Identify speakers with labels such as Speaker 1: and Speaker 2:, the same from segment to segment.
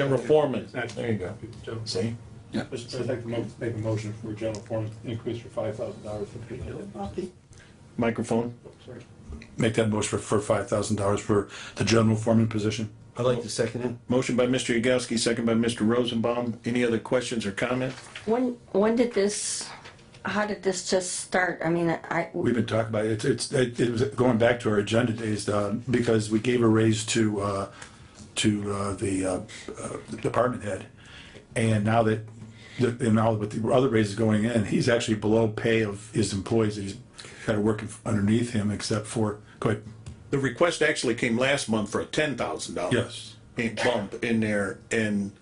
Speaker 1: General foreman.
Speaker 2: There you go. See?
Speaker 1: Mr. President, I'd like to mo- make a motion for general foreman increase for five thousand dollars for Peter
Speaker 2: Microphone.
Speaker 3: Make that motion for, for five thousand dollars for the general foreman position.
Speaker 4: I'd like to second it.
Speaker 2: Motion by Mr. Yagowski, second by Mr. Rosenbaum. Any other questions or comments?
Speaker 5: When, when did this, how did this just start? I mean, I,
Speaker 3: We've been talking about it. It's, it, it was going back to our agenda days, uh, because we gave a raise to, uh, to, uh, the, uh, uh, the department head. And now that, the- and now with the other raises going in, he's actually below pay of his employees that he's, that are working underneath him except for, go ahead.
Speaker 2: The request actually came last month for a ten thousand dollars.
Speaker 3: Yes.
Speaker 2: Bump in there, and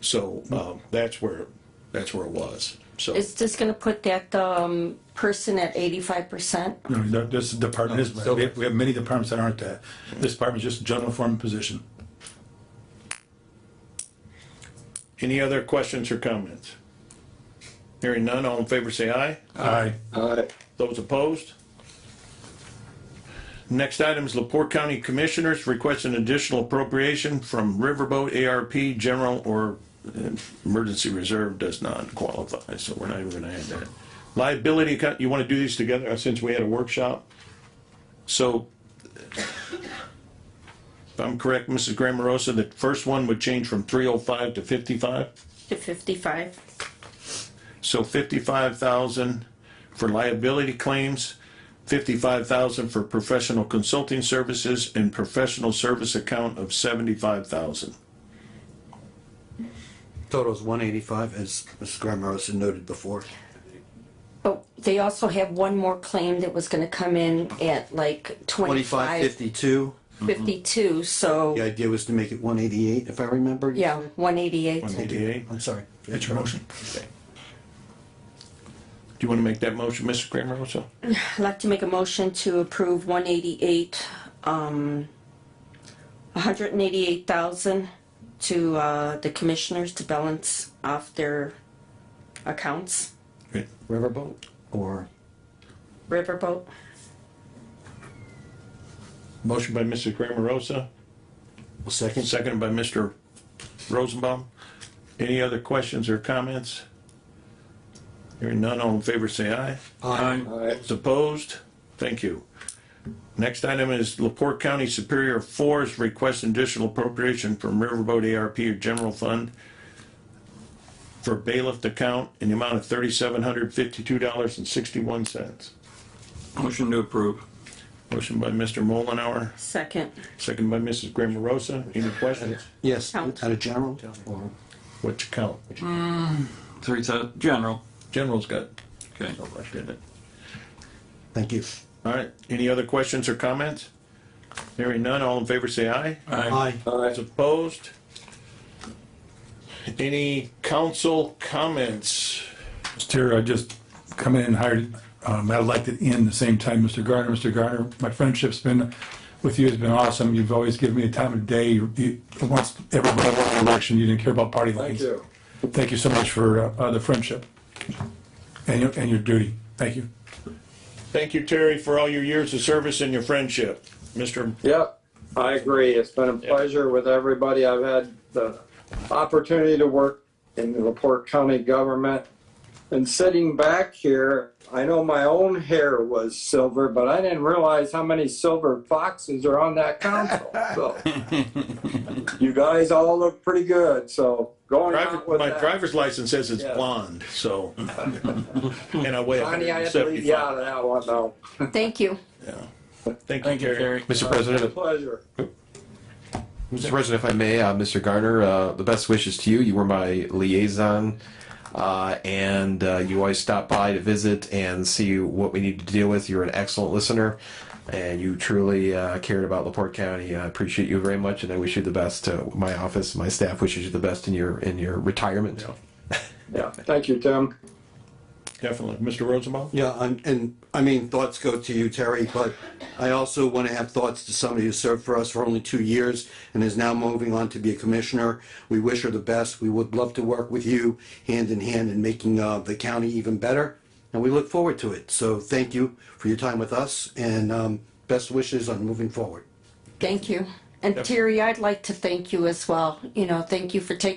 Speaker 2: so, um, that's where, that's where it was, so.
Speaker 5: is this gonna put that, um, person at eighty-five percent?
Speaker 3: No, no, this department is,
Speaker 4: Still-
Speaker 3: we have, we have many departments that aren't that. This department is just a general foreman position.
Speaker 2: Any other questions or comments? Hearing none, all in favor say aye.
Speaker 3: Aye.
Speaker 2: Those opposed? Next item is Laporte County Commissioners request an additional appropriation from Riverboat ARP General or uh, Emergency Reserve does not qualify, so we're not even gonna add that. Liability account, you wanna do these together uh, since we had a workshop? So if I'm correct, Mrs. Grammerosa, the first one would change from three oh five to fifty-five?
Speaker 5: To fifty-five?
Speaker 2: So fifty-five thousand for liability claims, fifty-five thousand for professional consulting services, and professional service account of seventy-five thousand.
Speaker 4: Total is one eighty-five, as Mrs. Grammerosa noted before.
Speaker 5: But they also have one more claim that was gonna come in at like
Speaker 4: Twenty-five
Speaker 5: twenty-five,
Speaker 4: fifty-two.
Speaker 5: fifty-two, so,
Speaker 4: The idea was to make it one eighty-eight, if I remember. you
Speaker 5: yeah,
Speaker 4: said?
Speaker 5: one eighty-eight.
Speaker 2: Eighty-eight.
Speaker 4: I'm sorry.
Speaker 3: That's your motion.
Speaker 2: Do you want to make that motion, Mr. Grammerosa?
Speaker 5: I'd like to make a motion to approve one eighty-eight, um, hundred and eighty-eight thousand to, uh, the commissioners to balance off their accounts.
Speaker 4: Riverboat or
Speaker 5: Riverboat.
Speaker 2: Motion by Mrs. Grammerosa,
Speaker 4: second?
Speaker 2: seconded by Mr. Rosenbaum. Any other questions or comments? Hearing none, all in favor, say aye.
Speaker 4: Aye.
Speaker 2: Those Opposed? Thank you. Next item is Laporte County Superior Forest request additional appropriation from Riverboat ARP or General Fund for bailiff account in the amount of thirty-seven hundred fifty-two dollars and sixty-one cents.
Speaker 6: Motion to approve.
Speaker 2: Motion by Mr. Mullenhour,
Speaker 5: Second.
Speaker 2: second by Mrs. Grammerosa. Any questions?
Speaker 4: Yes,
Speaker 5: Count.
Speaker 4: out of general or
Speaker 2: What you count?
Speaker 6: Three, thou- general.
Speaker 2: General's got.
Speaker 6: Okay.
Speaker 2: Oh, I did it.
Speaker 4: Thank you.
Speaker 2: All right, any other questions or comments? Hearing none, all in favor say aye.
Speaker 4: Aye.
Speaker 2: As opposed? Any council comments?
Speaker 3: Mr. Chair, I just come in and hired, um, I elected in the same time, Mr. Garner. Mr. Garner, my friendship's been with you has been awesome. You've always given me the time of day. You, you- once every election, you didn't care about party lines. Thank you. Thank you so much for, uh, uh, the friendship and your, and your duty. Thank you.
Speaker 2: Thank you, Terry, for all your years of service and your friendship. Mr.
Speaker 7: Yep, I agree. It's been a pleasure with everybody. I've had the opportunity to work in the Laporte County government. And sitting back here, I know my own hair was silver, but I didn't realize how many silver foxes are on that council. So you guys all look pretty good. So going
Speaker 2: Driver,
Speaker 7: out with
Speaker 2: my
Speaker 7: that,
Speaker 2: driver's license says it's
Speaker 7: Yeah.
Speaker 2: blonde, so. And I weigh
Speaker 7: Johnny, I had to leave you
Speaker 2: 175.
Speaker 7: out of that one though.
Speaker 5: Thank you.
Speaker 2: Thank you, Terry.
Speaker 8: Mr. President,
Speaker 7: Pleasure.
Speaker 8: Mr. President, if I may, uh, Mr. Garner, uh, the best wishes to you. You were my liaison, uh, and uh, you always stop by to visit and see what we need to deal with. You're an excellent listener, and you truly uh, cared about Laporte County. I appreciate you very much, and I wish you the best. Uh, my office, my staff wishes you the best in your in your retirement.
Speaker 7: Yeah, thank you, Tim.
Speaker 2: Definitely. Mr. Rosenbaum?
Speaker 4: Yeah, and, and, I mean, thoughts go to you, Terry, but I also want to have thoughts to somebody who served for us for only two years and is now moving on to be a commissioner. We wish her the best. We would love to work with you hand in hand in making, uh, the county even better. And we look forward to it. So thank you for your time with us and, um, best wishes on moving forward.
Speaker 5: Thank you. And Terry, I'd like to thank you as well. You know, thank you for taking